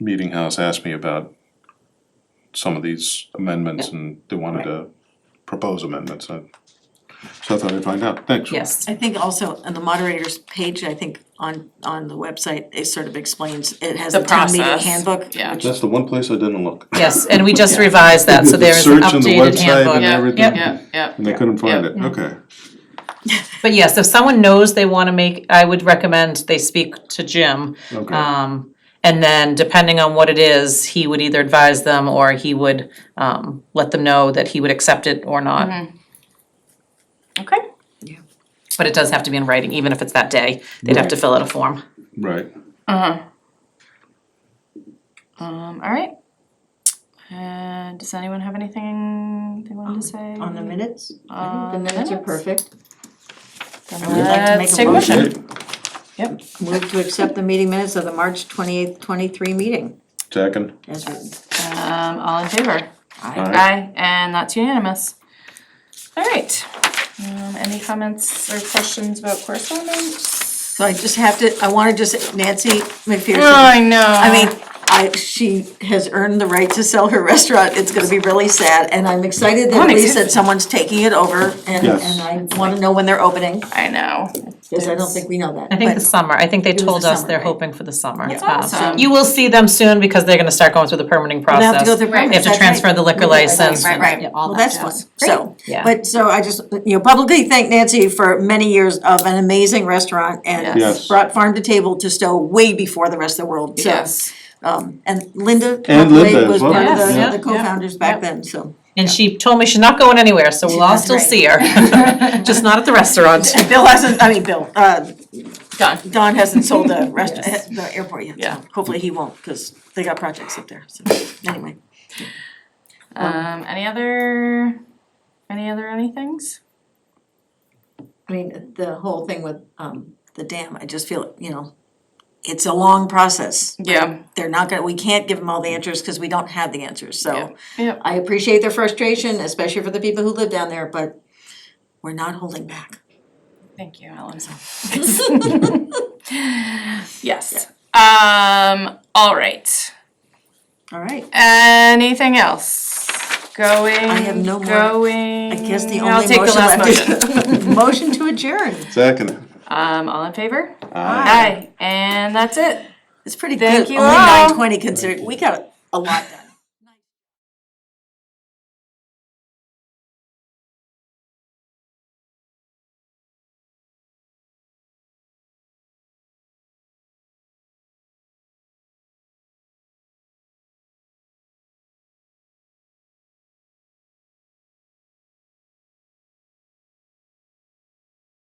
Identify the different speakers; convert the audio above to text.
Speaker 1: meeting house asked me about some of these amendments and they wanted to propose amendments. I- So I thought I'd find out. Thanks.
Speaker 2: Yes,
Speaker 3: I think also on the moderator's page, I think on on the website, it sort of explains, it has
Speaker 2: The
Speaker 3: a town meeting
Speaker 2: process,
Speaker 3: handbook.
Speaker 2: yeah.
Speaker 3: which-
Speaker 1: That's the one place I didn't look.
Speaker 2: yes, and we just revised that, so
Speaker 1: The
Speaker 2: there is an
Speaker 1: search and the
Speaker 2: updated handbook. Mm.
Speaker 1: website and everything.
Speaker 2: Yep,
Speaker 1: Yeah.
Speaker 2: yep, yep.
Speaker 1: And I couldn't find it. Okay.
Speaker 2: But yes, if someone knows they wanna make, I would recommend they speak to Jim.
Speaker 1: Okay.
Speaker 2: Um, and then depending on what it is, he would either advise them or he would, um, let them know that he would accept it or not.
Speaker 4: Mm-hmm. Okay.
Speaker 2: But it does have to be in writing, even if it's that day, they'd have to fill out a form.
Speaker 1: Right.
Speaker 4: Um, all right. And does anyone have anything Mm, they wanted to say?
Speaker 3: On the minutes?
Speaker 4: On
Speaker 3: The Uh, minutes are perfect.
Speaker 4: Then
Speaker 3: would like to make
Speaker 4: let's
Speaker 3: a
Speaker 4: take a
Speaker 3: motion.
Speaker 4: motion.
Speaker 1: Okay.
Speaker 4: Yep.
Speaker 3: Move to accept the meeting minutes of the March twenty-eighth, twenty-three meeting
Speaker 1: Second.
Speaker 3: as written.
Speaker 4: Um, all in favor?
Speaker 1: Aye.
Speaker 4: Aye, and that's unanimous. All right. Um, any comments or questions about correspondence?
Speaker 3: So I just have to, I wanna just, Nancy McPherson,
Speaker 4: Oh, I know.
Speaker 3: I mean, I, she has earned the right to sell her restaurant, it's gonna be really sad, and I'm excited that
Speaker 4: I'm
Speaker 3: at least
Speaker 4: excited.
Speaker 3: that someone's taking it over, and,
Speaker 1: Yes.
Speaker 3: and I wanna know when they're opening,
Speaker 4: I know.
Speaker 3: because I don't think we know that.
Speaker 2: I think
Speaker 3: but-
Speaker 2: the summer, I think they
Speaker 3: was
Speaker 2: told
Speaker 3: the
Speaker 2: us
Speaker 3: summer,
Speaker 2: they're
Speaker 3: right?
Speaker 2: hoping for the summer.
Speaker 3: That's
Speaker 2: Um,
Speaker 4: awesome.
Speaker 2: You will see them soon because they're gonna start going through the permitting process.
Speaker 3: They have to go through
Speaker 4: Right.
Speaker 2: They have
Speaker 3: permits,
Speaker 2: to
Speaker 3: that's right.
Speaker 2: transfer the liquor
Speaker 3: Right, right,
Speaker 2: license
Speaker 3: Right,
Speaker 2: and,
Speaker 3: right,
Speaker 2: yeah, all
Speaker 3: well,
Speaker 2: that
Speaker 3: that's fun,
Speaker 2: jazz.
Speaker 3: so,
Speaker 2: Yeah.
Speaker 3: but so I just, you know, publicly thank Nancy for many years of an amazing restaurant
Speaker 4: Yes.
Speaker 3: and
Speaker 1: Yes.
Speaker 3: brought farm to table to Stowe way before the rest of the world, so.
Speaker 4: Yes.
Speaker 3: Um, and Linda
Speaker 1: And Linda
Speaker 3: Copley
Speaker 1: as
Speaker 3: was
Speaker 1: well.
Speaker 3: one of
Speaker 2: Yes, yeah,
Speaker 3: the, the
Speaker 2: yeah.
Speaker 3: co-founders back then, so.
Speaker 2: And she told me she's not going anywhere, so we'll all
Speaker 3: That's
Speaker 2: still
Speaker 3: right.
Speaker 2: see her, just not at the restaurant.
Speaker 3: Bill hasn't, I mean, Bill, uh,
Speaker 4: Done.
Speaker 3: Don hasn't sold the restaurant, the airport yet,
Speaker 4: Yeah.
Speaker 3: so hopefully he won't, cause they got projects up there, so, anyway.
Speaker 4: Um, any other, any other anythings?
Speaker 3: I mean, the whole thing with, um, the dam, I just feel, you know, it's a long process.
Speaker 4: Yeah.
Speaker 3: They're not gonna, we can't give them all the answers, cause we don't have the answers, so.
Speaker 4: Yeah.
Speaker 3: I appreciate their frustration, especially for the people who live down there, but we're not holding back.
Speaker 4: Thank you, Ellen. Yes. Um, all right.
Speaker 3: All right,
Speaker 4: Anything else? Going, going.
Speaker 3: have no more. I guess the
Speaker 4: Mm, I'll
Speaker 3: only
Speaker 4: take the
Speaker 3: motion
Speaker 4: last
Speaker 3: left
Speaker 4: motion.
Speaker 3: is, motion to adjourn.
Speaker 1: Second.
Speaker 4: Um, all in favor?
Speaker 1: Aye.
Speaker 4: Aye, and that's it.
Speaker 3: It's pretty
Speaker 4: Thank
Speaker 3: good,
Speaker 4: you
Speaker 3: only
Speaker 4: all.
Speaker 3: nine twenty considering, we got a lot done.